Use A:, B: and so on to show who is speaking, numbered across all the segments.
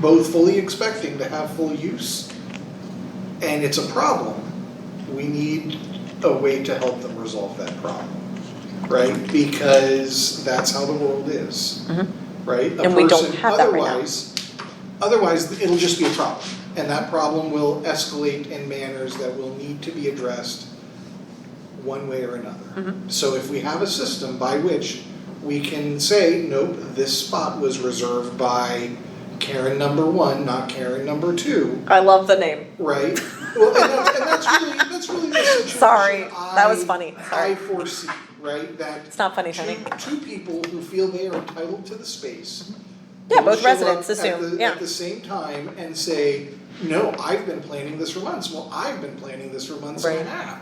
A: both fully expecting to have full use, and it's a problem. We need a way to help them resolve that problem, right? Because that's how the world is,
B: Mhm.
A: right? A
B: And we don't
A: person-
B: have that right now.
A: Otherwise, otherwise, it'll just be a problem, and that problem will escalate in manners that will need to be addressed one way or another.
B: Mm-hmm.
A: So if we have a system by which we can say, nope, this spot was reserved by Karen number one, not Karen number two,
B: I love the name.
A: right? Well, and that's, and that's really, that's really the situation
B: Sorry, that was
A: I-
B: funny. Sorry.
A: I foresee, right, that
B: It's not funny,
A: two,
B: honey.
A: two people who feel they are entitled to the space.
B: Yeah,
A: will
B: both
A: show up
B: residents
A: at
B: assume,
A: the-
B: yeah.
A: At the same time and say, no, I've been planning this for months, well, I've been planning this for months and a
B: Right.
A: half.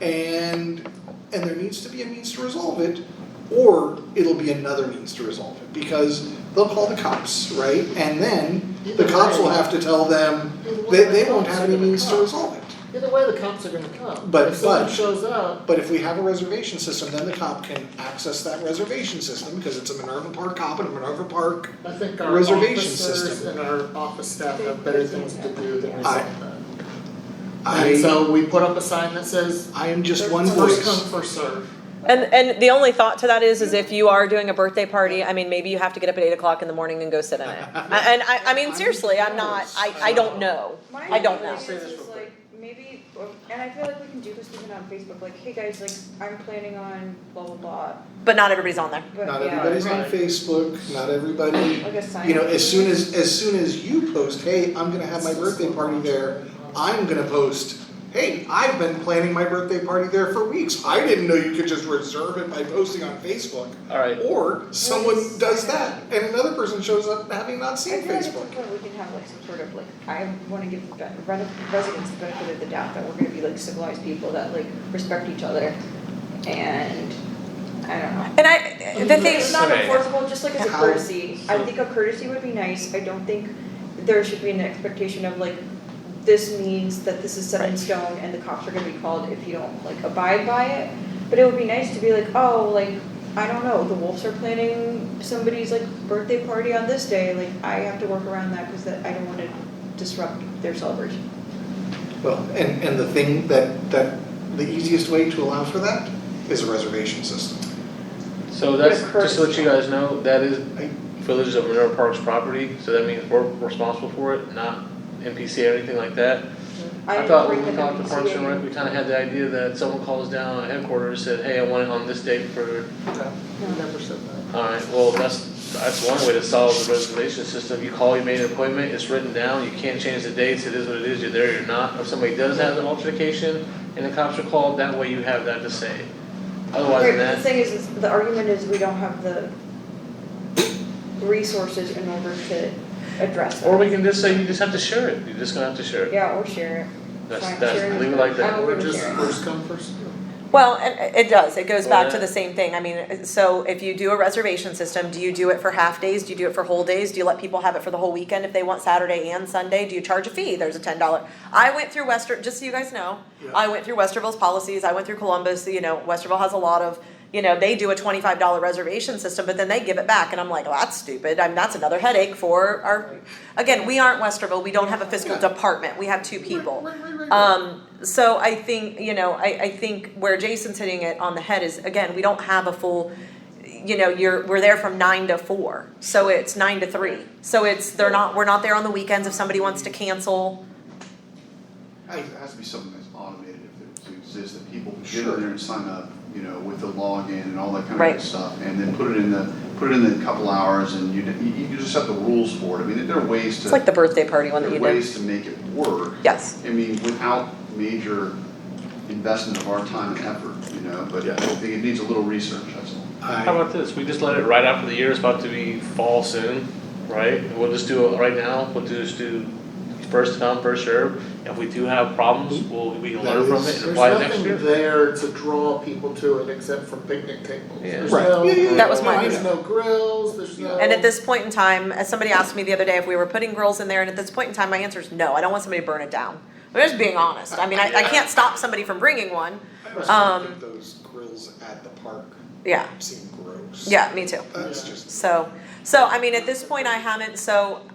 A: And, and there needs to be a means to resolve it, or it'll be another means to resolve it, because they'll call the cops, right? And then the cops will have to tell them that they won't have any means to resolve it.
C: Either way, the cops are gonna come.
A: But-
C: If someone
A: but-
C: shows up,
A: But if we have a reservation system, then the cop can access that reservation system, because it's a Minerva Park cop and a Minerva Park
C: I think our
A: Reservation
C: officers
A: system.
C: and our office staff have better things to do than resolve
A: I-
C: that. And
A: I,
C: so we put up a sign that says,
A: I am just
C: "First
A: one
C: come,
A: voice.
C: first served.
B: And and the only thought to that is is if you are doing a birthday party, I mean maybe you have to get up at eight o'clock in the morning and go sit in it. I- And I, I mean seriously, I'm not. I, I don't know.
D: My
B: I don't know.
D: feeling is, is like, maybe, and I feel like we can do this even on Facebook, like, hey guys, like, I'm planning on blah blah blah,
B: But not everybody's on there.
D: but
A: Not
D: yeah,
A: everybody's on
C: right.
A: Facebook, not everybody,
D: like a sign.
A: you know, as soon as, as soon as you post, hey, I'm gonna have my birthday party there, I'm gonna post, hey, I've been planning my birthday party there for weeks, I didn't know you could just reserve it by posting on Facebook.
E: Alright,
A: Or someone does that, and another person shows up having not
D: I
A: seen
D: feel like at some
A: Facebook.
D: point we can have like some sort of like, I wanna give the ben- ren- residents the benefit of the doubt that we're gonna be like civilized people that like respect each other and, I don't know.
B: And I the thing
D: It's not
E: Okay.
D: enforceable, just like as a
A: How-
D: courtesy, I think a courtesy would be nice, I don't think there should be an expectation of like, this means that this is set in stone and the cops are gonna be called if you don't like abide by it. But it would be nice to be like, oh, like, I don't know, the wolves are planning somebody's like birthday party on this day, like, I have to work around that because that, I don't wanna disrupt their celebration.
A: Well, and, and the thing that, that, the easiest way to allow for that is a reservation system.
E: so that's,
D: What a
E: just to let you guys know, that is
A: I-
E: Village of Minerva Park's property, so that means we're responsible for it, not NPC or anything like that. I thought when we got to Parks and Rec, we kinda had the idea that someone calls down on headquarters, said, hey, I want it on this date for,
C: No, we never said that.
E: alright, well, that's, that's one way to solve the reservation system, you call, you made an appointment, it's written down, you can't change the dates, it is what it is, you're there, you're not. If somebody does have an altercation and the cops are called, that way you have that to say. Otherwise
D: Right, but
E: than
D: the
E: that,
D: thing is, is the argument is we don't have the resources in order to address that.
E: Or we can just say, you just have to share it, you're just gonna have to share it.
D: Yeah, or share it.
E: That's,
D: Fine,
E: that's,
D: share it.
E: leave it like
D: I
E: that.
D: would-
C: We're just
D: Yeah.
C: first come, first served.
B: Well, and it does. It goes back to
E: Yeah.
B: the same thing. I mean, so if you do a reservation system, do you do it for half days? Do you do it for whole days? Do you let people have it for the whole weekend if they want Saturday and Sunday? Do you charge a fee? There's a ten dollar. I went through Wester. Just so you guys know,
A: Yeah.
B: I went through Westerville's policies. I went through Columbus. You know, Westerville has a lot of. You know, they do a twenty-five dollar reservation system, but then they give it back, and I'm like, well, that's stupid. I mean, that's another headache for our. Again, we aren't Westerville. We don't have a fiscal
A: Yeah.
B: department. We have two people.
A: Right, right, right, right, right.
B: Um, so I think, you know, I, I think where Jason's hitting it on the head is, again, we don't have a full, you know, you're, we're there from nine to four, so it's nine to three. So it's, they're not, we're not there on the weekends if somebody wants to cancel.
F: I think It has to be something that's automated if it exists, that people can get
A: Sure.
F: in there and sign up, you know, with the login and all that kind of
B: Right.
F: good stuff. And then put it in the, put it in the couple hours and you, you you just have the rules for it. I mean, there are ways to,
B: It's like the birthday party one
F: there
B: that
F: are
B: you did.
F: ways to make it work.
B: Yes,
F: I mean, without major investment of our time and effort, you know, but
A: Yeah.
F: I think it needs a little research, that's all.
E: How
A: I,
E: about this, we just let it ride out for the year, it's about to be fall soon, right? We'll just do it right now, we'll just do first come, first serve. If we do have problems, we'll, we can
A: That
E: learn from
A: is-
E: it and
C: There's
E: apply it next
C: nothing
E: year.
C: there to draw people to it except for picnic tables.
E: Yeah.
C: There's
A: Right.
C: no-
A: Yeah, yeah, yeah.
B: That was mine.
C: There's no grills, there's no.
B: and at this point in time, as somebody asked me the other day if we were putting grills in there, and at this point in time, my answer is no, I don't want somebody to burn it down. I'm just being honest, I mean, I, I can't stop somebody from bringing one,
A: I always
B: um,
A: think those grills at the park
B: yeah,
A: seem gross.
B: yeah, me too.
A: That's just
B: So, so I mean, at this point, I haven't, so